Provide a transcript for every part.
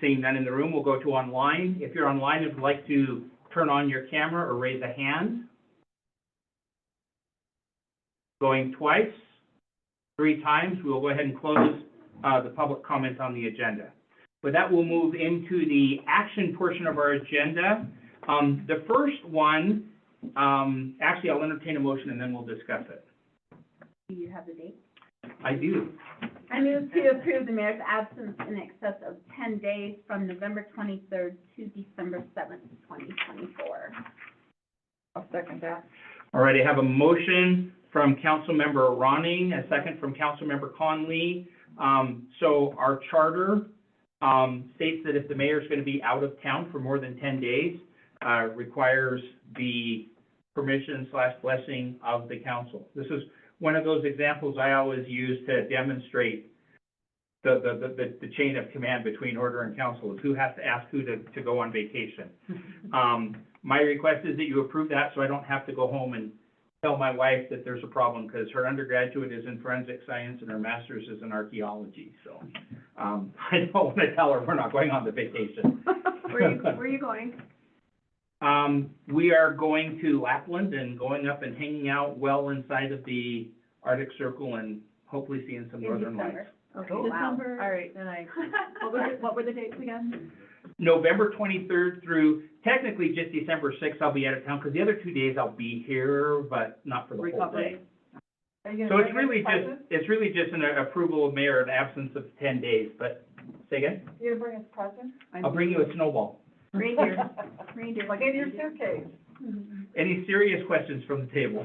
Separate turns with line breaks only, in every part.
Seeing none in the room, we'll go to online. If you're online and would like to turn on your camera or raise a hand. Going twice, three times, we will go ahead and close uh, the public comment on the agenda. With that, we'll move into the action portion of our agenda. Um, The first one, um, actually, I'll entertain a motion and then we'll discuss it.
Do you have the date?
I do.
I move to approve the mayor's absence in excess of ten days from November twenty-third to December seventh, twenty twenty-four.
I'll second that.
All right, I have a motion from Councilmember Ronning, a second from Councilmember Conley. Um, so our charter, um, states that if the mayor is gonna be out of town for more than ten days, uh, requires the permission slash blessing of the council. This is one of those examples I always use to demonstrate the, the, the- the, the chain of command between order and council, is who has to ask who to, to go on vacation. Um, my request is that you approve that, so I don't have to go home and tell my wife that there's a problem, because her undergraduate is in forensic science and her master's is in archaeology, so, um, I don't want to tell her we're not going on the vacation.
Where you, where you going?
Um, we are going to Lapland and going up and hanging out well inside of the Arctic Circle and hopefully seeing some
In
northern
December.
lights.
Okay,
Oh,
wow.
December. All right, then I,
What was it-
what were the dates again?
November twenty-third through technically just December sixth, I'll be out of town, because the other two days I'll be here, but not for the whole day.
Recovery. Are you gonna
So it's
bring
really
us
just, it's really just an approval of mayor in absence of ten days, but, say again?
presents? You gonna bring us presents?
I'll bring you a snowball.
Reindeer, reindeer.
Like in your suitcase?
Mhm.
Any serious questions from the table?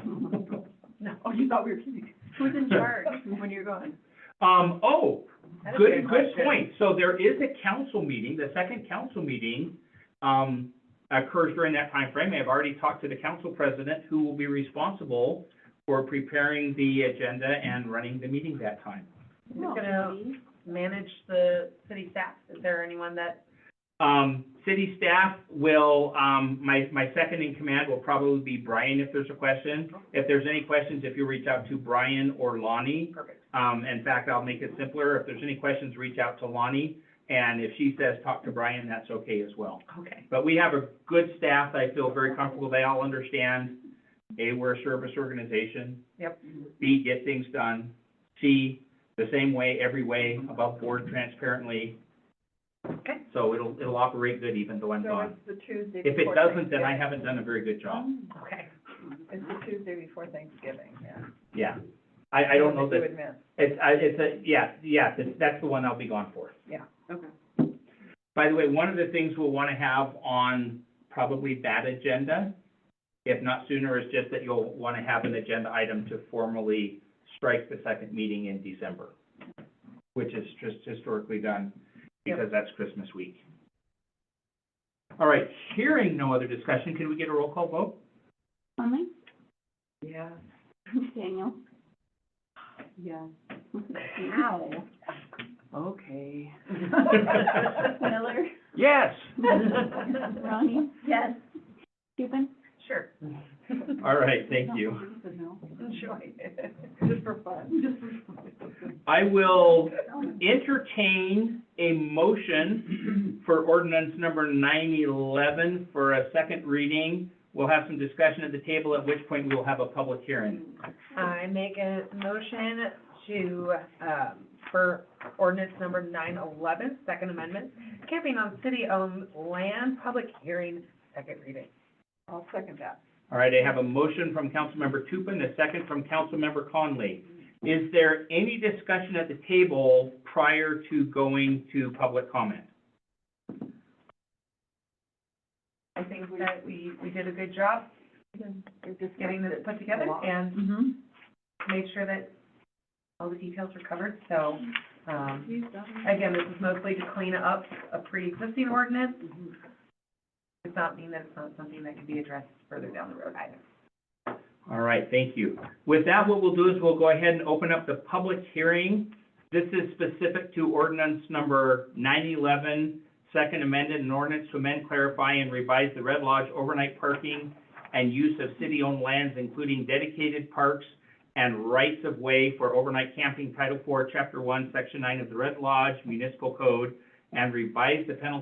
No, oh, you thought we were kidding.
Who's in charge?
When you're gone.
Um, oh,
That is a
good, good
question.
point. So there is a council meeting, the second council meeting, um, occurs during that time frame. I've already talked to the council president, who will be responsible for preparing the agenda and running the meeting that time.
Who's gonna manage the city staff? Is there anyone that,
Um, city staff will, um, my, my second in command will probably be Brian if there's a question. If there's any questions, if you reach out to Brian or Lonnie.
Perfect.
Um, in fact, I'll make it simpler. If there's any questions, reach out to Lonnie. And if she says, talk to Brian, that's okay as well.
okay,
But we have a good staff. I feel very comfortable. They all understand, A, we're a service organization.
Yep.
B, get things done. C, the same way, every way, above board, transparently.
Okay.
So it'll, it'll operate good even though I'm
So
gone.
it's the Tuesday
If it
before
doesn't, then I
Thanksgiving.
haven't done a very good job.
okay.
It's the Tuesday before Thanksgiving, yeah.
Yeah. I, I don't know
Something
that,
you would miss.
it's, I, it's a, yeah, yeah, that's- that's the one I'll be gone for.
Yeah, okay.
By the way, one of the things we'll want to have on probably that agenda, if not sooner, is just that you'll want to have an agenda item to formally strike the second meeting in December, which is just historically done because that's Christmas week. All right, hearing no other discussion, can we get a roll call vote?
Conley?
Yeah,
Daniel?
yeah,
Wow.
okay.
Miller?
Yes.
Ronnie? Yes. Cuban?
Sure.
All right, thank you.
Enjoy it, just for fun.
I will entertain a motion for ordinance number nine eleven for a second reading. We'll have some discussion at the table, at which point we will have a public hearing.
I make a motion to, um, for ordinance number nine eleven, second amendment, camping on city-owned land, public hearing, second reading.
I'll second that.
All right, I have a motion from Councilmember Tupin, a second from Councilmember Conley. Is there any discussion at the table prior to going to public comment?
I think that we, we did a good job getting this put together and
Mm-hmm.
made sure that all the details were covered, so, um, Again, this is mostly to clean up a pre-existing ordinance. Does not mean that it's not something that can be addressed further down the road either.
All right, thank you. With that, what we'll do is we'll go ahead and open up the public hearing. This is specific to ordinance number 911, second amended, an ordinance to amend, clarify, and revise the Red Lodge overnight parking and use of city-owned lands, including dedicated parks and rights of way for overnight camping, Title IV, Chapter 1, Section 9 of the Red Lodge Municipal Code, and revise the penalty